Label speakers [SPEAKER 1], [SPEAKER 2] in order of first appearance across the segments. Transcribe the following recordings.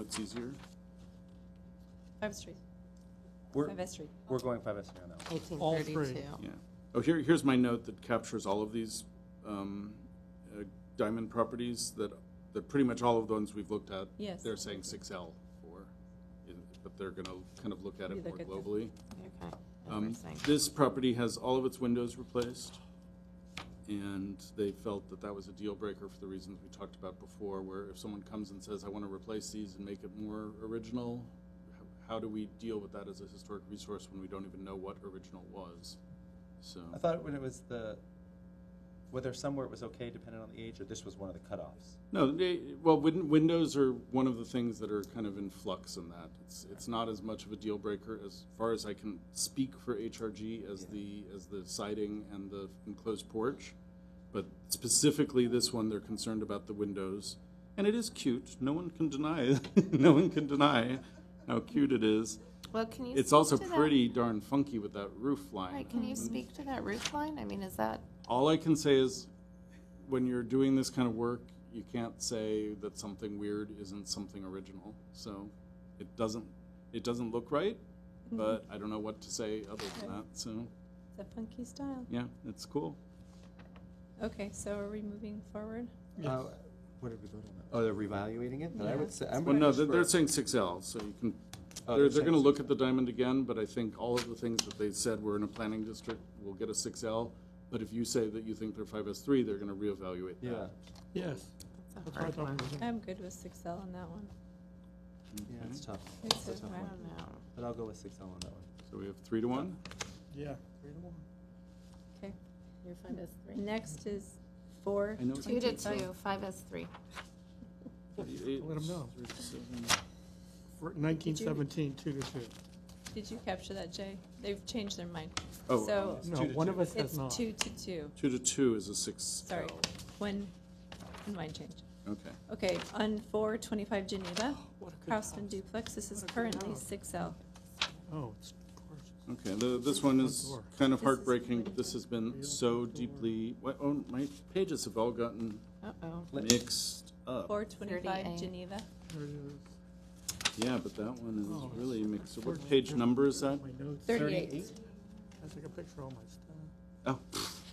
[SPEAKER 1] it's easier.
[SPEAKER 2] Five Street,
[SPEAKER 3] We're,
[SPEAKER 2] Five Street.
[SPEAKER 3] we're going five S here on that one.
[SPEAKER 4] All three.
[SPEAKER 5] 1832.
[SPEAKER 1] Yeah. Oh, here, here's my note that captures all of these um, uh, diamond properties that, that pretty much all of the ones we've looked at.
[SPEAKER 2] Yes.
[SPEAKER 1] They're saying six L for, in- but they're gonna kind of look at
[SPEAKER 2] You
[SPEAKER 1] it more
[SPEAKER 2] look at the-
[SPEAKER 1] globally.
[SPEAKER 5] Okay.
[SPEAKER 1] Um,
[SPEAKER 5] Interesting.
[SPEAKER 1] This property has all of its windows replaced, and they felt that that was a deal breaker for the reasons we talked about before, where if someone comes and says, I want to replace these and make it more original, h- how do we deal with that as a historic resource when we don't even know what original was? So,
[SPEAKER 3] I thought when it was the, whether somewhere it was okay depending on the age, or this was one of the cutoffs.
[SPEAKER 1] no, they, well, win- windows are one of the things that are kind of in flux in that. It's, it's not as much of a deal breaker as far as I can speak for HRG as the, as the siding and the enclosed porch. But specifically this one, they're concerned about the windows. And it is cute. No one can deny, no one can deny how cute it is.
[SPEAKER 5] Well, can you?
[SPEAKER 1] It's
[SPEAKER 5] speak
[SPEAKER 1] also
[SPEAKER 5] to that-
[SPEAKER 1] pretty darn funky with that roof
[SPEAKER 5] Right,
[SPEAKER 1] line.
[SPEAKER 5] can you speak to that roof line? I mean, is that,
[SPEAKER 1] All I can say is, when you're doing this kind of work, you can't say that something weird isn't something original. So, it doesn't, it doesn't look right, but I don't know what to say other than that. So,
[SPEAKER 2] It's a funky style.
[SPEAKER 1] yeah, it's cool.
[SPEAKER 2] Okay, so are we moving forward?
[SPEAKER 4] Yes.
[SPEAKER 3] What did we vote on? Oh, they're reevaluating it, but I
[SPEAKER 2] Yeah.
[SPEAKER 3] would say, I'm.
[SPEAKER 1] Well, no,
[SPEAKER 3] gonna
[SPEAKER 1] they're,
[SPEAKER 3] just
[SPEAKER 1] they're
[SPEAKER 3] vote-
[SPEAKER 1] saying six L, so you can.
[SPEAKER 3] Oh,
[SPEAKER 1] They're,
[SPEAKER 3] they're
[SPEAKER 1] they're gonna
[SPEAKER 3] saying
[SPEAKER 1] look at the diamond again, but I think all of the things that they said were in a planning district will get a six L. But if you say that you think they're five S three, they're gonna reevaluate
[SPEAKER 3] Yeah,
[SPEAKER 1] that.
[SPEAKER 4] Yes,
[SPEAKER 5] that's a
[SPEAKER 4] that's what I
[SPEAKER 5] hard
[SPEAKER 4] thought.
[SPEAKER 5] one.
[SPEAKER 4] it was.
[SPEAKER 2] I'm good with six L on that one.
[SPEAKER 3] yeah,
[SPEAKER 1] Okay.
[SPEAKER 3] it's tough.
[SPEAKER 2] It's
[SPEAKER 3] It's a
[SPEAKER 2] a
[SPEAKER 3] tough
[SPEAKER 5] I
[SPEAKER 3] one.
[SPEAKER 2] wrap.
[SPEAKER 5] don't know.
[SPEAKER 3] But I'll go with six L on that one.
[SPEAKER 1] So we have three to one?
[SPEAKER 4] Yeah. Three to one.
[SPEAKER 2] Okay.
[SPEAKER 5] Your five S three.
[SPEAKER 2] Next is four.
[SPEAKER 1] I know-
[SPEAKER 5] Two to
[SPEAKER 2] 25.
[SPEAKER 5] two, five S three.
[SPEAKER 1] Eight,
[SPEAKER 4] Let 'em know.
[SPEAKER 1] three to seven.
[SPEAKER 4] For nineteen seventeen, two to two.
[SPEAKER 2] Did you capture that, Jay? They've changed their mind.
[SPEAKER 1] Oh,
[SPEAKER 2] So
[SPEAKER 3] It's
[SPEAKER 4] No,
[SPEAKER 3] two to
[SPEAKER 4] one
[SPEAKER 3] two.
[SPEAKER 4] of us has
[SPEAKER 2] it's
[SPEAKER 4] not.
[SPEAKER 2] two to two.
[SPEAKER 1] Two to two is a six.
[SPEAKER 2] Sorry.
[SPEAKER 1] L.
[SPEAKER 2] One, one line change.
[SPEAKER 1] Okay.
[SPEAKER 2] Okay, on four twenty-five Geneva, Craftsman duplex, this is currently six L.
[SPEAKER 4] Oh, it's gorgeous.
[SPEAKER 1] Okay, the, this one is
[SPEAKER 4] Front door.
[SPEAKER 1] kind of
[SPEAKER 2] This is
[SPEAKER 1] heartbreaking.
[SPEAKER 2] pretty
[SPEAKER 1] This has been so deeply, why- oh, my pages have all gotten
[SPEAKER 5] Uh-oh.
[SPEAKER 3] Let-
[SPEAKER 1] mixed up.
[SPEAKER 2] Four twenty-five
[SPEAKER 5] 38.
[SPEAKER 2] Geneva.
[SPEAKER 4] There it is.
[SPEAKER 1] Yeah, but that one
[SPEAKER 4] Oh.
[SPEAKER 1] is really mixed. up. What page number is that?
[SPEAKER 4] My notes.
[SPEAKER 2] Thirty.
[SPEAKER 4] I took a picture of all my stuff.
[SPEAKER 1] Oh,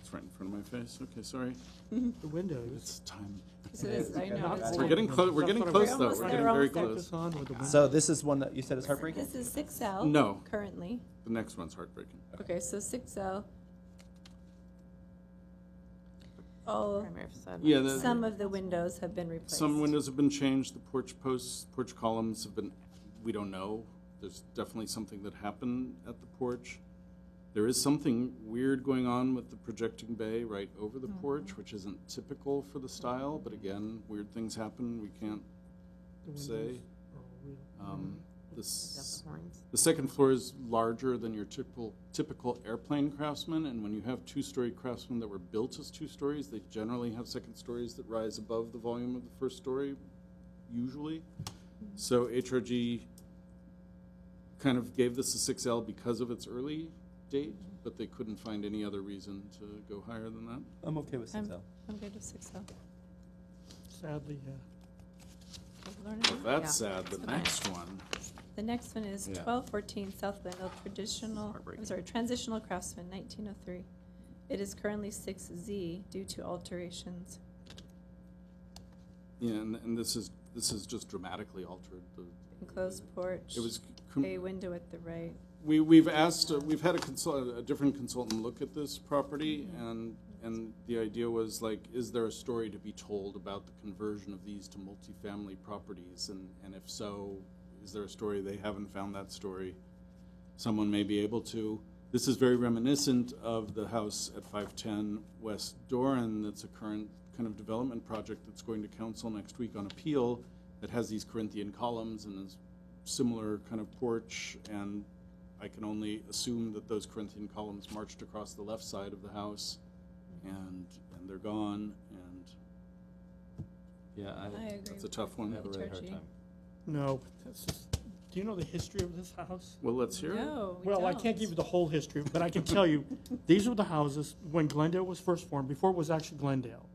[SPEAKER 1] it's right in front of my face. Okay, sorry.
[SPEAKER 4] The windows.
[SPEAKER 1] It's time.
[SPEAKER 2] So this, I know.
[SPEAKER 4] Not
[SPEAKER 2] it's-
[SPEAKER 4] full.
[SPEAKER 1] We're getting close, we're
[SPEAKER 4] That's
[SPEAKER 1] getting
[SPEAKER 4] what I'm
[SPEAKER 1] close
[SPEAKER 2] saying.
[SPEAKER 1] though. We're
[SPEAKER 2] We're almost
[SPEAKER 1] getting
[SPEAKER 2] there,
[SPEAKER 1] very close.
[SPEAKER 2] almost
[SPEAKER 4] Focus on with the windows.
[SPEAKER 3] So this is one that you said is heartbreaking?
[SPEAKER 2] This is six L.
[SPEAKER 1] No.
[SPEAKER 2] Currently.
[SPEAKER 1] The next one's heartbreaking.
[SPEAKER 2] Okay, so six L. All,
[SPEAKER 5] Primary facade.
[SPEAKER 1] Yeah, the-
[SPEAKER 2] some of the windows have been replaced.
[SPEAKER 1] Some windows have been changed, the porch posts, porch columns have been, we don't know. There's definitely something that happened at the porch. There is something weird going on with the projecting bay right over the porch, which isn't typical for the style, but again, weird things happen, we can't
[SPEAKER 4] The windows
[SPEAKER 1] say.
[SPEAKER 4] are real.
[SPEAKER 3] Uh.
[SPEAKER 1] Um,
[SPEAKER 5] Is that
[SPEAKER 1] This,
[SPEAKER 5] the horns?
[SPEAKER 1] the second floor is larger than your typical, typical airplane craftsman, and when you have two-story craftsmen that were built as two stories, they generally have second stories that rise above the volume of the first story, usually. So HRG kind of gave this a six L because of its early date, but they couldn't find any other reason to go higher than that.
[SPEAKER 3] I'm okay with six
[SPEAKER 2] I'm-
[SPEAKER 3] L.
[SPEAKER 2] I'm good with six L.
[SPEAKER 4] Sadly, yeah.
[SPEAKER 2] Mm-hmm.
[SPEAKER 1] If that's sad, the
[SPEAKER 5] Okay.
[SPEAKER 1] next one,
[SPEAKER 2] The next one is
[SPEAKER 1] Yeah.
[SPEAKER 2] twelve fourteen South Glenville traditional, I'm
[SPEAKER 1] Heartbreaking.
[SPEAKER 2] sorry, transitional craftsman, nineteen oh three. It is currently six Z due to alterations.
[SPEAKER 1] yeah, and, and this is, this is just dramatically altered. The-
[SPEAKER 2] Enclosed porch,
[SPEAKER 1] It was. com-
[SPEAKER 2] a window at the right.
[SPEAKER 1] We, we've asked, uh, we've had a consult, a different consultant look at this property, and, and the idea was like, is there a story to be told about the conversion of these to multifamily properties? And, and if so, is there a story? They haven't found that story. Someone may be able to. This is very reminiscent of the house at 510 West Doran that's a current kind of development project that's going to council next week on appeal that has these Corinthian columns and is similar kind of porch, and I can only assume that those Corinthian columns marched across the left side of the house, and, and they're gone, and
[SPEAKER 3] Yeah, I
[SPEAKER 2] I agree.
[SPEAKER 1] that's a tough
[SPEAKER 3] I
[SPEAKER 1] one.
[SPEAKER 3] have a really hard
[SPEAKER 2] HRG.
[SPEAKER 3] time.
[SPEAKER 4] No, but this is, do you know the history of this house?
[SPEAKER 1] Well, let's hear it.
[SPEAKER 2] No, we
[SPEAKER 4] Well, I
[SPEAKER 2] don't.
[SPEAKER 4] can't give you the whole history, but I can tell you, these were the houses when Glendale was first formed, before it was actually Glendale.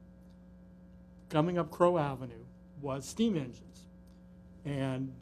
[SPEAKER 4] Coming up Crow Avenue was steam engines. And